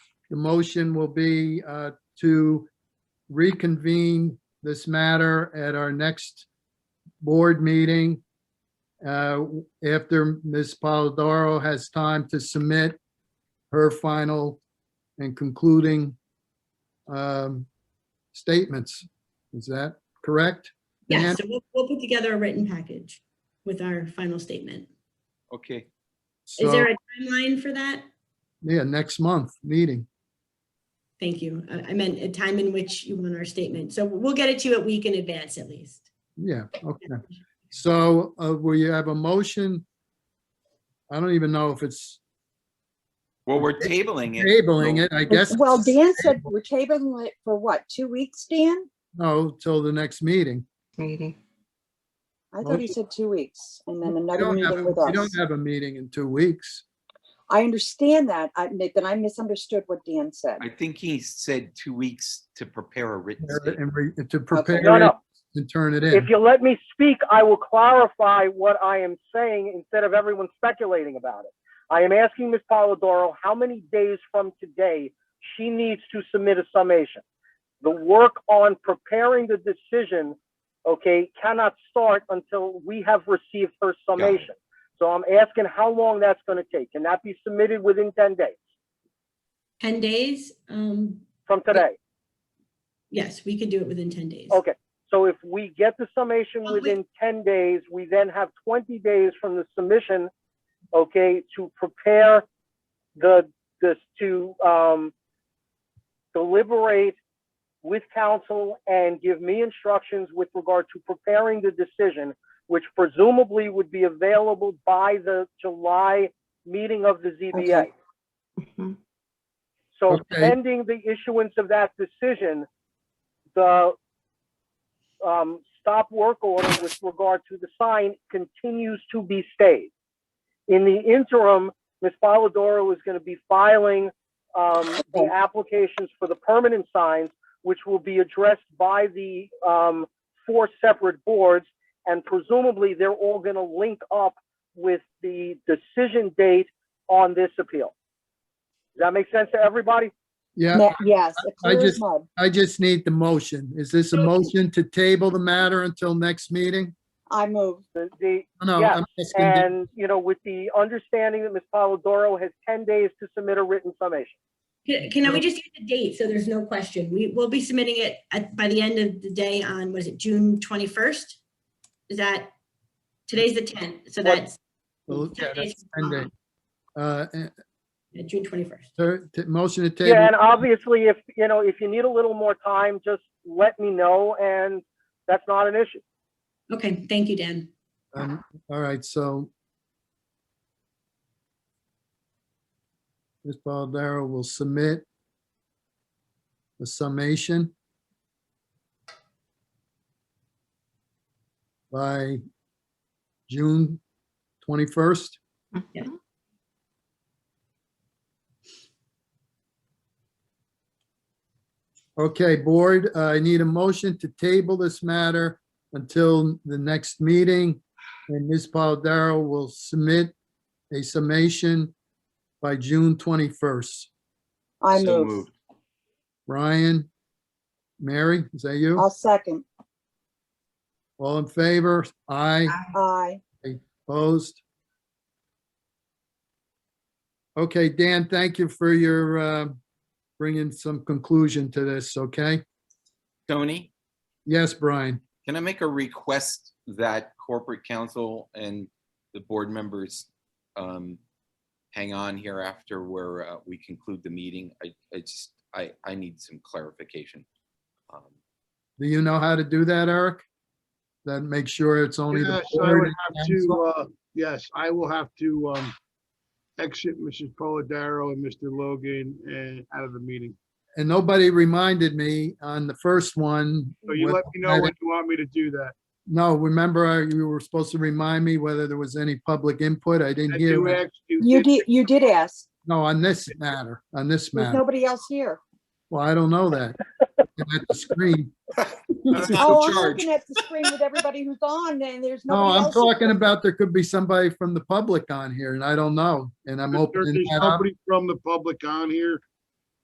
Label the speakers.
Speaker 1: The motion will be uh, to reconvene this matter at our next board meeting uh, after Ms. Polidoro has time to submit her final and concluding um, statements. Is that correct?
Speaker 2: Yeah,
Speaker 1: And-
Speaker 2: so we'll, we'll put together a written package with our final statement.
Speaker 3: Okay,
Speaker 2: Is
Speaker 1: So,
Speaker 2: there a timeline for that?
Speaker 1: yeah, next month, meeting.
Speaker 2: Thank you. Uh, I I meant a time in which you want our statement. So we'll get it to you a week in advance at least.
Speaker 1: Yeah, okay. So uh, we have a motion. I don't even know if it's
Speaker 3: well, we're tabling it.
Speaker 1: tabling it, I guess.
Speaker 4: Well, Dan said we're tabling it for what, two weeks, Dan?
Speaker 1: No, till the next meeting.
Speaker 5: meeting.
Speaker 4: I thought he
Speaker 1: Motion.
Speaker 4: said two weeks and then
Speaker 1: We
Speaker 4: another
Speaker 1: don't have,
Speaker 4: meeting with
Speaker 1: we don't
Speaker 4: us.
Speaker 1: have a meeting in two weeks.
Speaker 4: I understand that, I- Nathan, I misunderstood what Dan said.
Speaker 3: I think he said two weeks to prepare a written statement.
Speaker 1: And re- to
Speaker 6: No,
Speaker 1: prepare it
Speaker 6: no.
Speaker 1: and turn it
Speaker 6: If
Speaker 1: in.
Speaker 6: you let me speak, I will clarify what I am saying instead of everyone speculating about it. I am asking Ms. Polidoro how many days from today she needs to submit a summation. The work on preparing the decision, okay, cannot start until we have received her summation. So I'm asking how long that's going to take. Can that be submitted within 10 days
Speaker 2: 10 days? Um,
Speaker 6: from today?
Speaker 2: yes, we could do it within 10 days.
Speaker 6: Okay, so if we get the summation
Speaker 2: Well, we-
Speaker 6: within ten days, we then have twenty days from the submission, okay, to prepare the, this, to, um, deliberate with counsel and give me instructions with regard to preparing the decision, which presumably would be available by the July meeting of the ZBA.
Speaker 4: Okay.
Speaker 5: Mhm.
Speaker 6: So
Speaker 1: Okay.
Speaker 6: pending the issuance of that decision, the um, stop work order with regard to the sign continues to be stayed. In the interim, Ms. Polidoro is going to be filing um, the applications for the permanent signs, which will be addressed by the um, four separate boards, and presumably they're all going to link up with the decision date on this appeal. Does that make sense to everybody?
Speaker 1: Yeah,
Speaker 4: Ne- Yes, it
Speaker 1: I
Speaker 4: clear as
Speaker 1: just-
Speaker 4: mud.
Speaker 1: I just need the motion. Is this a motion to table the matter until next meeting?
Speaker 4: I move.
Speaker 6: The, the,
Speaker 1: No,
Speaker 6: Yeah,
Speaker 1: I'm asking, the-
Speaker 6: and, you know, with the understanding that Ms. Polidoro has ten days to submit a written summation.
Speaker 2: Can can we just get the date so there's no question? We will be submitting it at, by the end of the day on, was it June 21st? Is that, today's the 10th, so
Speaker 1: What-
Speaker 2: that's
Speaker 1: well, yeah,
Speaker 2: 10 days
Speaker 1: that's
Speaker 2: from
Speaker 1: 10 days. Uh, eh,
Speaker 2: tomorrow, June 21st.
Speaker 1: ter- t- Motion to
Speaker 6: Yeah, and
Speaker 1: table,
Speaker 6: obviously, if, you know, if you need a little more time, just let me know, and that's not an issue.
Speaker 2: Okay, thank you, Dan.
Speaker 1: Um, all right, so. Ms. Baldera will submit the summation by June 21st.
Speaker 2: Yeah.
Speaker 5: Mhm.
Speaker 1: Okay, board, uh, I need a motion to table this matter until the next meeting. And Ms. Paladaro will submit a summation by June 21st.
Speaker 4: I
Speaker 3: So
Speaker 4: move.
Speaker 3: moved.
Speaker 1: Ryan, Mary, is that you?
Speaker 4: I'll second.
Speaker 1: All in favor? Aye,
Speaker 4: Aye.
Speaker 1: opposed? Okay, Dan, thank you for your, uh, bringing some conclusion to this, okay?
Speaker 3: Tony,
Speaker 1: Yes, Brian?
Speaker 3: can I make a request that corporate counsel and the board members um, hang on here after where uh, we conclude the meeting? I, I just, I, I need some clarification. Um,
Speaker 1: Do you know how to do that, Eric? Then make sure it's only the
Speaker 7: Yes, I
Speaker 1: board.
Speaker 7: would have to, uh, yes, I will have to, um, exit Mrs. Polidoro and Mr. Logan and out of the meeting.
Speaker 1: And nobody reminded me on the first one.
Speaker 7: So you
Speaker 1: what-
Speaker 7: let me know when you want me to do that.
Speaker 1: No, remember, I- you were supposed to remind me whether there was any public input. I
Speaker 7: I
Speaker 1: didn't
Speaker 7: do
Speaker 1: hear. it.
Speaker 7: ask you.
Speaker 4: You did, you did ask.
Speaker 1: No, on this matter, on this
Speaker 4: There's
Speaker 1: matter.
Speaker 4: nobody else here.
Speaker 1: Well, I don't know that. Looking At the screen.
Speaker 3: He's
Speaker 4: Oh,
Speaker 3: not in charge.
Speaker 4: I'm looking at the screen with everybody who's on and there's
Speaker 1: No,
Speaker 4: nobody
Speaker 1: I'm
Speaker 4: else. here.
Speaker 1: talking about there could be somebody from the public on here and I don't know. And I'm
Speaker 7: If
Speaker 1: opening
Speaker 7: There's
Speaker 1: that up.
Speaker 7: somebody from the public on here.